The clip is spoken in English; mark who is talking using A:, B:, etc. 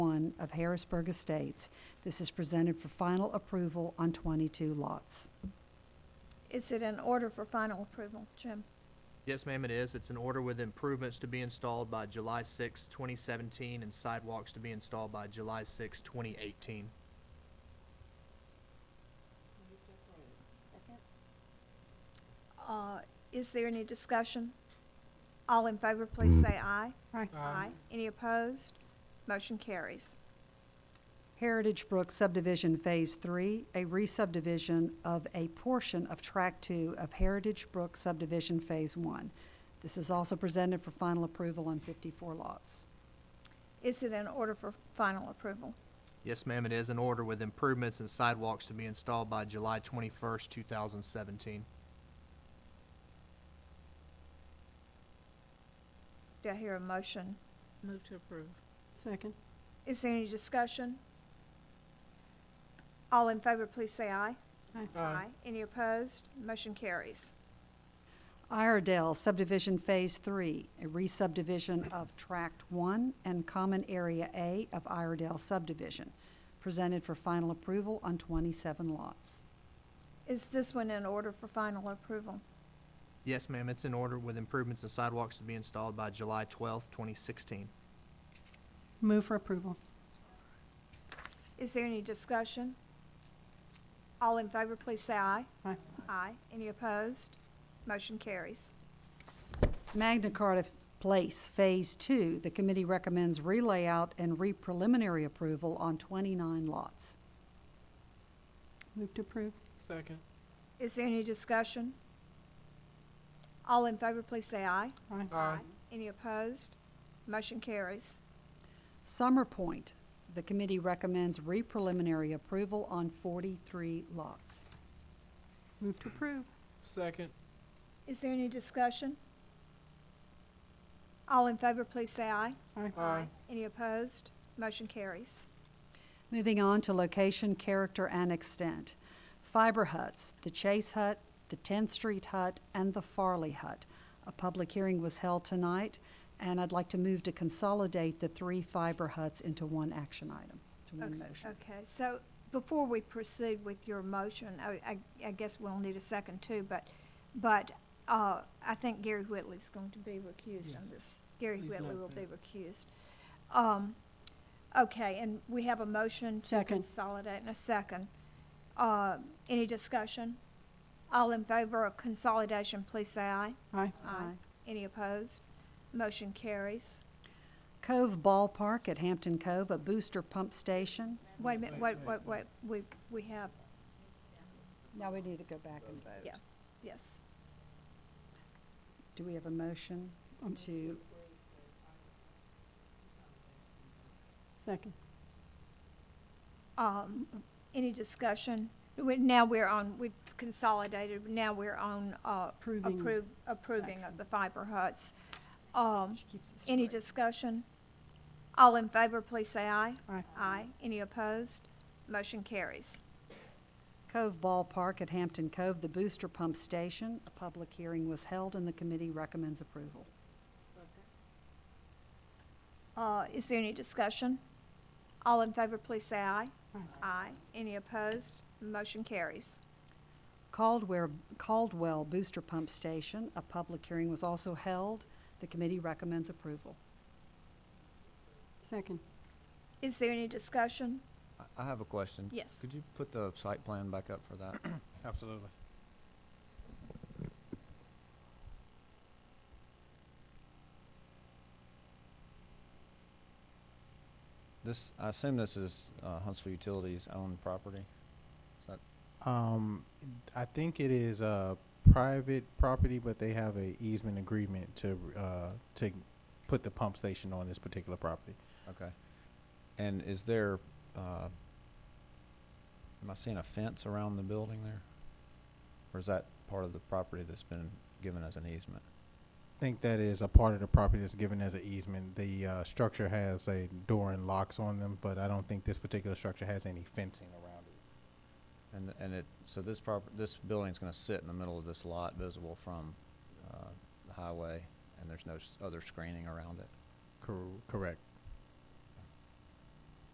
A: of Harrisburg Estates. This is presented for final approval on 22 lots.
B: Is it in order for final approval, Jim?
C: Yes, ma'am, it is. It's an order with improvements to be installed by July 6, 2017, and sidewalks to be installed by July 6, 2018.
B: Uh, Is there any discussion? All in favor, please say aye.
A: Aye.
B: Aye. Any opposed? Motion carries.
A: Heritage Brook subdivision Phase 3, a re-subdivision of a portion of Track 2 of Heritage Brook subdivision Phase 1. This is also presented for final approval on 54 lots.
B: Is it in order for final approval?
C: Yes, ma'am, it is an order with improvements and sidewalks to be installed by July 21, 2017.
B: Do I hear a motion?
D: Move to approve.
E: Second.
B: Is there any discussion? All in favor, please say aye.
E: Aye.
B: Any opposed? Motion carries.
A: Iredell subdivision Phase 3, a re-subdivision of Tract 1 and Common Area A of Iredell subdivision, presented for final approval on 27 lots.
B: Is this one in order for final approval?
C: Yes, ma'am, it's an order with improvements and sidewalks to be installed by July 12, 2016.
E: Move for approval.
B: Is there any discussion? All in favor, please say aye.
E: Aye.
B: Aye. Any opposed? Motion carries.
A: Magna Carta Place Phase 2, the committee recommends relayout and re-preliminary approval on 29 lots.
E: Move to approve.
D: Second.
B: Is there any discussion? All in favor, please say aye.
E: Aye.
B: Any opposed? Motion carries.
A: Summer Point, the committee recommends re-preliminary approval on 43 lots.
E: Move to approve.
D: Second.
B: Is there any discussion? All in favor, please say aye.
E: Aye.
B: Any opposed? Motion carries.
A: Moving on to location, character, and extent. Fiber huts, the Chase Hut, the 10th Street Hut, and the Farley Hut. A public hearing was held tonight, and I'd like to move to consolidate the three fiber huts into one action item, to one
B: Okay,
A: motion.
B: Okay, so before we proceed with your motion, I, I, I guess we'll need a second too, but, but, uh, I think Gary Whitley's going to be recused on
D: Yes.
B: this. Gary
D: He's
B: Whitley
D: not
B: will be
D: there.
B: recused. Um, okay, and we have a motion to
E: Second.
B: consolidate and a second. Uh, any discussion? All in favor of consolidation, please say aye.
E: Aye.
A: Aye.
B: Any opposed? Motion carries.
A: Cove Ballpark at Hampton Cove, a booster pump station.
B: Wait a minute,
D: Wait,
B: wait,
D: wait,
B: wait, wait, we, we have,
A: Now we need to go back and vote.
B: Yeah. yes.
A: Do we have a motion
E: Um,
A: to,
E: Second.
B: Um, any discussion? We- Now we're on, we've consolidated, now we're on, uh,
E: Approving.
B: approve, approving of the fiber huts. Um,
A: she keeps us
B: any
A: straight.
B: discussion? All in favor, please say aye.
E: Aye.
B: Aye. Any opposed? Motion carries.
A: Cove Ballpark at Hampton Cove, the booster pump station. A public hearing was held and the committee recommends approval.
B: Uh, is there any discussion? All in favor, please say aye.
E: Aye.
B: Aye. Any opposed? Motion carries.
A: Caldwell, Caldwell Booster Pump Station, a public hearing was also held. The committee recommends approval.
E: Second.
B: Is there any discussion?
F: I- I have a question.
B: Yes.
F: Could you put the site plan back up for that?
D: Absolutely.
F: This, I assume this is uh, Huntsville Utilities owned property? Is that,
G: Um, I think it is a private property, but they have a easement agreement to, uh, to put the pump station on this particular property.
F: okay. And is there, uh, am I seeing a fence around the building there? Or is that part of the property that's been given as an easement?
G: I think that is a part of the property that's given as an easement. The, uh, structure has a door and locks on them, but I don't think this particular structure has any fencing around it.
F: And, and it, so this prop, this building's gonna sit in the middle of this lot visible from, uh, the highway, and there's no s- other screening around it?
G: Cor- correct.